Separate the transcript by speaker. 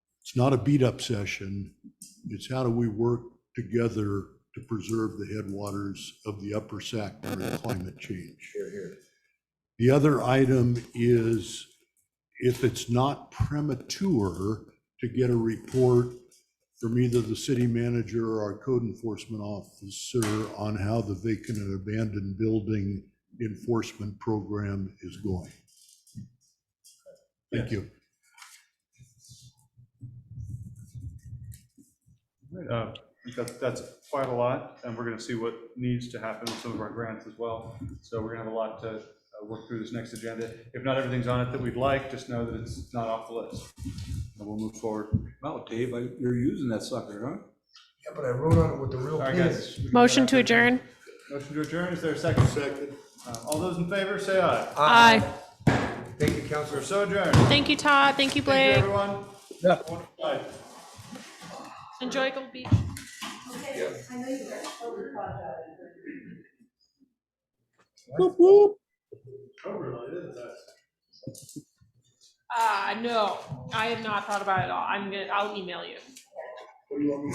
Speaker 1: It's not a beat-up session. It's how do we work together to preserve the headwaters of the upper Sac during climate change? The other item is if it's not premature to get a report from either the city manager or our code enforcement officer on how the vacant and abandoned building enforcement program is going. Thank you.
Speaker 2: Uh, That's, that's quite a lot, and we're gonna see what needs to happen with some of our grants as well. So we're gonna have a lot to uh, work through this next agenda. If not everything's on it that we'd like, just know that it's not off the list, and we'll move forward.
Speaker 3: Wow, Dave, I- you're using that sucker, huh?
Speaker 4: Yeah, but I wrote on it with the real
Speaker 2: All right,
Speaker 4: pen.
Speaker 2: guys. we can go
Speaker 5: Motion
Speaker 2: back
Speaker 5: to adjourn?
Speaker 2: Motion to adjourn, is there a second? Second. All those in favor, say aye.
Speaker 5: Aye.
Speaker 4: Thank you, Counselor.
Speaker 2: We're so adjourned. Thank
Speaker 5: Thank you, Todd. Thank you,
Speaker 2: you,
Speaker 5: Blake.
Speaker 2: everyone.
Speaker 3: Yeah.
Speaker 2: Wonderful night.
Speaker 5: Enjoy Gold Beach.
Speaker 2: Oh, really? It is nice.
Speaker 5: Uh, Ah, no, I have not thought about it at all. I'm gonna, I'll email you.